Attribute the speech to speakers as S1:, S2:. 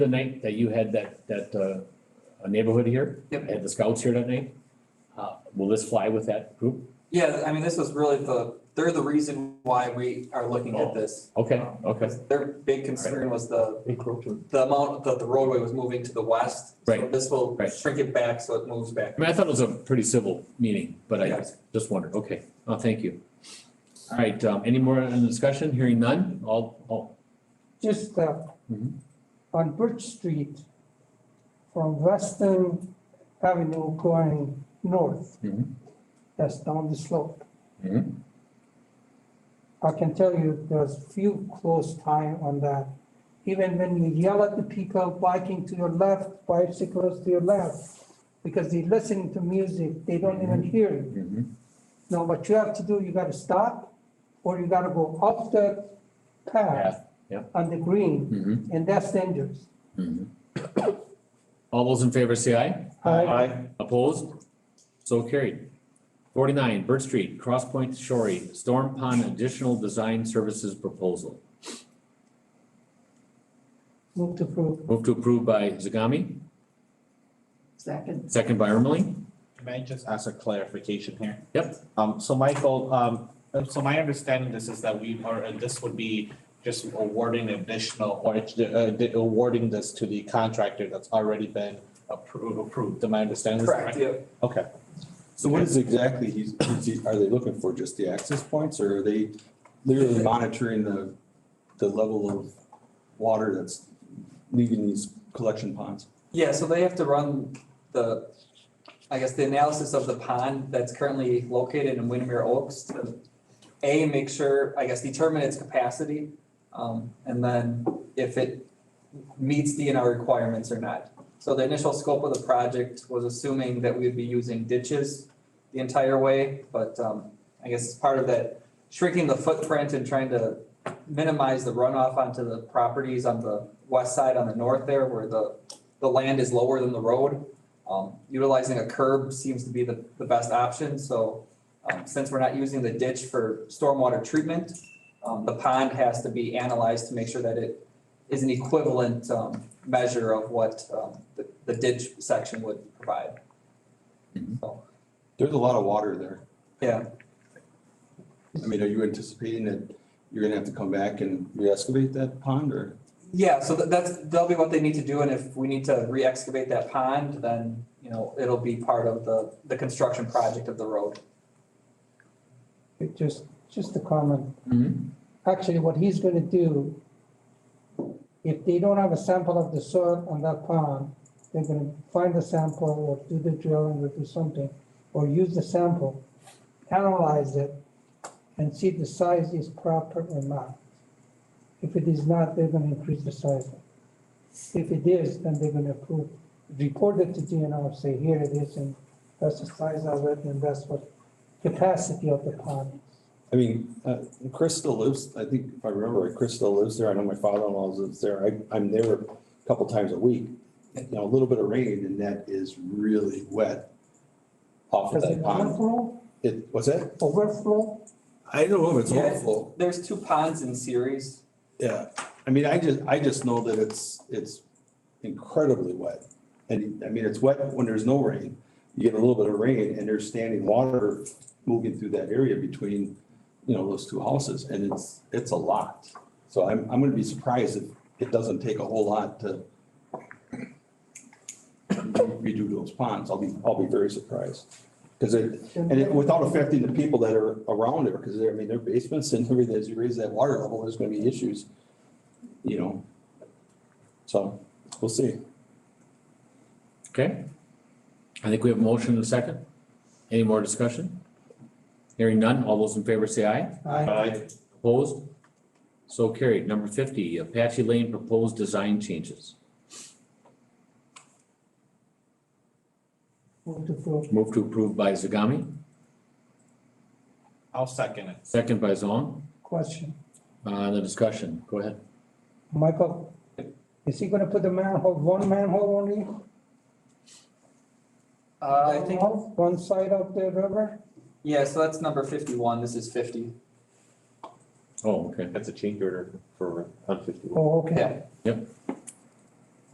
S1: the night that you had that, that, uh, neighborhood here?
S2: Yep.
S1: Had the scouts here that night? Uh, will this fly with that group?
S2: Yeah, I mean, this was really the, they're the reason why we are looking
S1: Oh,
S2: at this.
S1: Okay,
S2: Um,
S1: okay,
S2: because Their big concern was the,
S3: encroachment.
S2: the amount that the roadway was moving to the west. So
S1: Right,
S2: this will
S1: right.
S2: shrink it back so it moves back.
S1: I mean, I thought it was a pretty civil meeting, but I
S2: Yes.
S1: just wondered, okay, oh, thank you. All right, um, any more in the discussion, hearing none, all, all,
S4: just uh,
S1: Mhm.
S4: on Birch Street from Western Avenue going north.
S1: Mhm.
S4: That's down the slope.
S1: Mhm.
S4: I can tell you, there's few close time on that. Even when you yell at the people biking to your left, bicyclists to your left, because they listen to music, they don't even hear you.
S1: Mhm.
S4: Now, what you have to do, you gotta stop, or you gotta go off the path.
S1: yeah.
S4: On the green,
S1: Mhm.
S4: and that's dangerous.
S1: Mhm. all those in favor say aye?
S3: Aye.
S1: Opposed? So carried. Forty-nine, Bird Street, Cross Point Shorey, Storm Pond Additional Design Services Proposal.
S4: Move to approve.
S1: Move to approve by Zagami,
S5: Second.
S1: second by Ermeling.
S6: Can I just ask a clarification here?
S1: Yep.
S6: Um, so Michael, um, uh, so my understanding this is that we are, uh, this would be just awarding additional, or it's, uh, the- awarding this to the contractor that's already been approved, approved, am I understanding this
S2: Correct,
S6: correctly?
S2: yeah.
S6: Okay,
S3: So what is exactly he's, he's- are they looking for, just the access points, or are they literally monitoring the, the level of water that's leaving these collection ponds?
S2: Yeah, so they have to run the, I guess, the analysis of the pond that's currently located in Windermere Oaks to A, make sure, I guess, determine its capacity, um, and then if it meets DNR requirements or not. So the initial scope of the project was assuming that we'd be using ditches the entire way, but, um, I guess it's part of that shrinking the footprint and trying to minimize the runoff onto the properties on the west side, on the north there, where the the land is lower than the road. Um, utilizing a curb seems to be the, the best option, so, um, since we're not using the ditch for stormwater treatment, um, the pond has to be analyzed to make sure that it is an equivalent, um, measure of what, um, the, the ditch section would provide.
S1: Mhm.
S2: So,
S3: There's a lot of water there.
S2: yeah,
S3: I mean, are you anticipating that you're gonna have to come back and re-excavate that pond, or?
S2: yeah, so that, that's, that'll be what they need to do, and if we need to re-excavate that pond, then, you know, it'll be part of the, the construction project of the road.
S4: It Just, just a comment.
S1: Mhm.
S4: Actually, what he's gonna do, if they don't have a sample of the soil on that pond, they're gonna find the sample or do the drilling or do something, or use the sample, analyze it, and see if the size is proper or not. If it is not, they're gonna increase the size. If it is, then they're gonna approve, report it to DNR, say, here it is, and that's the size of it, and that's what capacity of the pond is.
S3: I mean, uh, Chris still lives, I think, if I remember right, Chris still lives there. I know my father-in-law lives there. I, I'm there a couple times a week. You know, a little bit of rain and that is really wet off of
S4: Does it
S3: that pond.
S4: overflow,
S3: It, what's that?
S4: overflow?
S3: I don't know if it's
S2: Yeah.
S3: overflow.
S2: There's two ponds in series,
S3: Yeah, I mean, I just, I just know that it's, it's incredibly wet. And I mean, it's wet when there's no rain. You get a little bit of rain and there's standing water moving through that area between, you know, those two houses and it's, it's a lot. So I'm, I'm gonna be surprised if it doesn't take a whole lot to redo those ponds. I'll be, I'll be very surprised. Cause it, and it, without affecting the people that are around there, because they're, I mean, their basements and everything, as you raise that water level, there's gonna be issues, you know? So, we'll see.
S1: Okay. I think we have a motion and a second. Any more discussion? Hearing none, all those in favor say aye.
S4: I
S1: Opposed? So carried. Number fifty, Apache Lane Proposed Design Changes.
S4: move to approve.
S1: Move to approve by Zagami,
S6: I'll second it.
S1: second by Zong.
S4: Question,
S1: Uh, the discussion, go ahead.
S4: Michael, is he gonna put the manhole, one manhole only?
S2: Uh, I think,
S4: One side of the river?
S2: yeah, so that's number fifty-one, this is fifty.
S1: Oh, okay.
S7: That's a change order for on fifty-one.
S4: Oh, okay.
S2: Yeah.
S1: Yep.